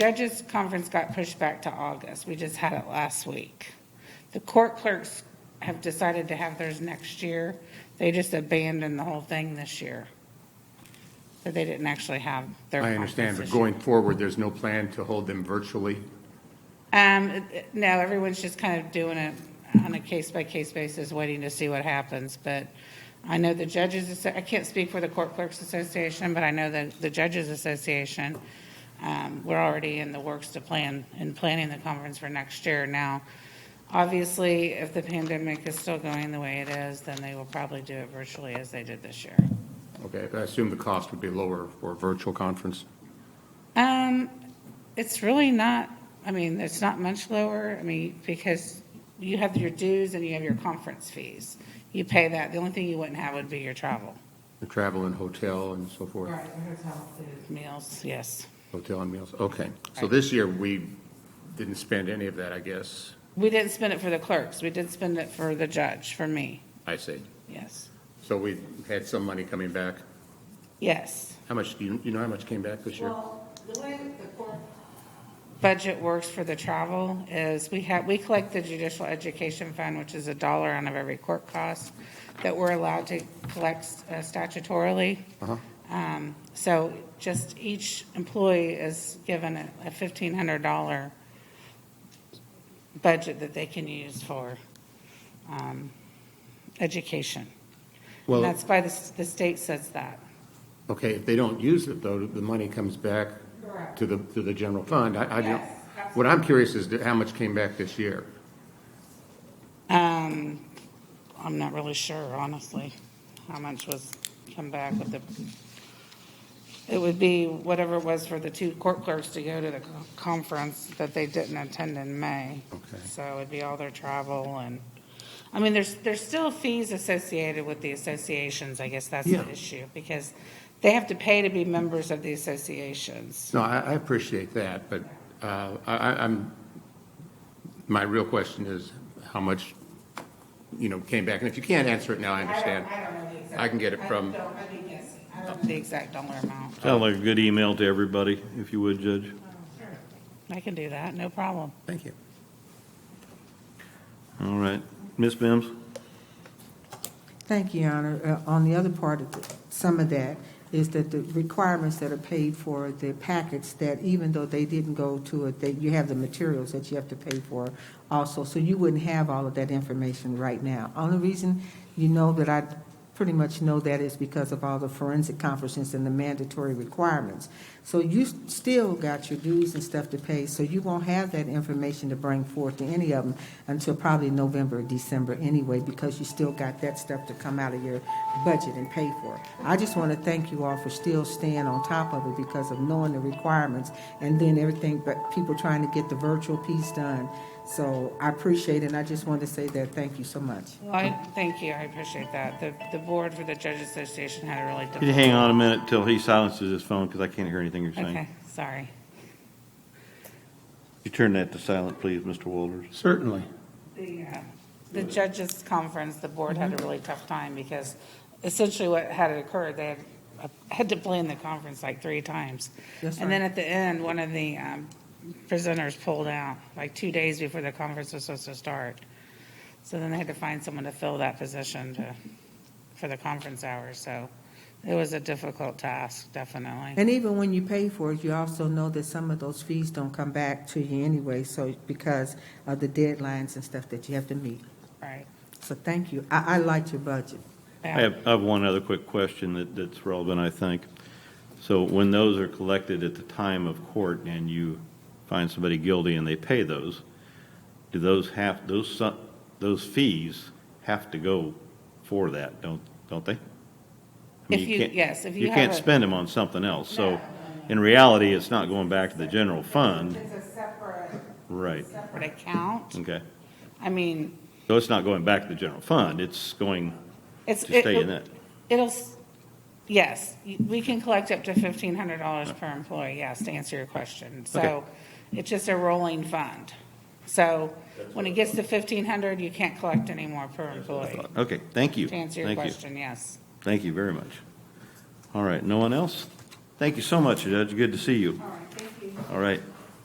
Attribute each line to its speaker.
Speaker 1: Judges' conference got pushed back to August. We just had it last week. The court clerks have decided to have theirs next year. They just abandoned the whole thing this year. So they didn't actually have their
Speaker 2: I
Speaker 1: conference
Speaker 2: understand, but
Speaker 1: this year.
Speaker 2: going forward, there's no plan to hold them virtually?
Speaker 1: Um, no, everyone's just kind of doing it on a case-by-case basis, waiting to see what happens, but I know the judges, Asso- I can't speak for the Court Clerks Association, but I know that the Judges Association, um, we're already in the works to plan, in planning the conference for next year. Now, obviously, if the pandemic is still going the way it is, then they will probably do it virtually as they did this year.
Speaker 2: Okay, but I assume the cost would be lower for a virtual conference?
Speaker 1: Um, it's really not, I mean, it's not much lower, I mean, because you have your dues and you have your conference fees. You pay that, the only thing you wouldn't have would be your travel,
Speaker 2: The travel and hotel and so forth?
Speaker 1: meals, yes.
Speaker 2: Hotel and meals, okay. So this year, we didn't spend any of that, I guess,
Speaker 1: We didn't spend it for the clerks, we did spend it for the judge, for me,
Speaker 2: I see.
Speaker 1: yes.
Speaker 2: So we had some money coming back.
Speaker 1: Yes,
Speaker 2: How much, do you, you know how much came back this year?
Speaker 3: Well, the way that the court,
Speaker 1: budget works for the travel is, we have, we collect the judicial education fund, which is a dollar out of every court cost that we're allowed to collect uh, statutorily.
Speaker 2: Uh-huh.
Speaker 1: Um, So just each employee is given a a $1,500 budget that they can use for um, education. And
Speaker 2: Well,
Speaker 1: that's by the, s- the state says that.
Speaker 2: okay, if they don't use it, though, the money comes back
Speaker 1: Correct.
Speaker 2: to the, to the general fund. I, I don't,
Speaker 1: Yes, absolutely.
Speaker 2: what I'm curious is how much came back this year?
Speaker 1: Um, I'm not really sure, honestly, how much was come back with the, it would be whatever it was for the two court clerks to go to the co- conference that they didn't attend in May.
Speaker 2: Okay.
Speaker 1: So it'd be all their travel and, I mean, there's, there's still fees associated with the associations, I guess that's
Speaker 2: Yeah.
Speaker 1: the issue, because they have to pay to be members of the associations.
Speaker 2: No, I, I appreciate that, but uh, I, I- I'm, my real question is how much, you know, came back? And if you can't answer it now, I understand.
Speaker 1: don't know the exact.
Speaker 2: I can get it from-
Speaker 1: I'd be guessing. I don't know the exact dollar amount.
Speaker 4: Sound like a good email to everybody, if you would, Judge.
Speaker 1: I can do that, no problem.
Speaker 2: Thank you.
Speaker 4: All right. Ms. Mims?
Speaker 3: Thank you, Your Honor. Uh, On the other part of the- some of that is that the requirements that are paid for the packets, that even though they didn't go to it, that you have the materials that you have to pay for also, so you wouldn't have all of that information right now. Only reason you know that I pretty much know that is because of all the forensic conferences and the mandatory requirements. So you s- still got your dues and stuff to pay, so you won't have that information to bring forth to any of them until probably November or December anyway, because you still got that stuff to come out of your budget and pay for. I just want to thank you all for still staying on top of it because of knowing the requirements and then everything, but people trying to get the virtual piece done. So I appreciate it, and I just wanted to say that, thank you so much.
Speaker 1: Well, I, thank you, I appreciate that. The, the board for the Judge Association had a really
Speaker 4: Could you
Speaker 1: difficult.
Speaker 4: hang on a minute till he silences his phone, because I can't hear anything you're saying?
Speaker 1: Okay, sorry.
Speaker 4: Could You turn that to silent, please, Mr. Walters.
Speaker 2: Certainly.
Speaker 1: The, uh, Mm-hmm. the Judges Conference, the board had a really tough time because essentially what had occurred, they had, uh, had to plan the conference like three times.
Speaker 3: Yes,
Speaker 1: And then
Speaker 3: ma'am.
Speaker 1: at the end, one of the um, presenters pulled out, like two days before the conference was supposed to start. So then they had to find someone to fill that position to, for the conference hours, so it was a difficult task, definitely.
Speaker 3: And even when you pay for it, you also know that some of those fees don't come back to you anyway, so because of the deadlines and stuff that you have to meet.
Speaker 1: Right.
Speaker 3: So thank you. I, I liked your budget.
Speaker 1: Yeah.
Speaker 4: I have, I have one other quick question that, that's relevant, I think. So when those are collected at the time of court and you find somebody guilty and they pay those, do those have, those, su- those fees have to go for that, don't, don't they? I mean,
Speaker 1: If you-
Speaker 4: can't-
Speaker 1: yes, if you have
Speaker 4: can't
Speaker 1: a-
Speaker 4: spend them on something else, so in reality, it's not going back to the general fund,
Speaker 1: It's a separate,
Speaker 4: right,
Speaker 1: separate account.
Speaker 4: okay.
Speaker 1: I mean,
Speaker 4: So it's not going back to the general fund, it's going
Speaker 1: it's.
Speaker 4: to stay in
Speaker 1: it'll-
Speaker 4: that.
Speaker 1: It'll, s- yes, y- we can collect up to fifteen hundred dollars per employee, yes, to answer your question. So
Speaker 4: Okay.
Speaker 1: it's just a rolling fund. So when it gets to fifteen hundred, you can't collect any more per employee,
Speaker 4: Okay, thank you.
Speaker 1: to answer your
Speaker 4: Thank you.
Speaker 1: question, yes.
Speaker 4: Thank you very much. All right, no one else? Thank you so much, Judge. Good to see you. All right, thank you. All right,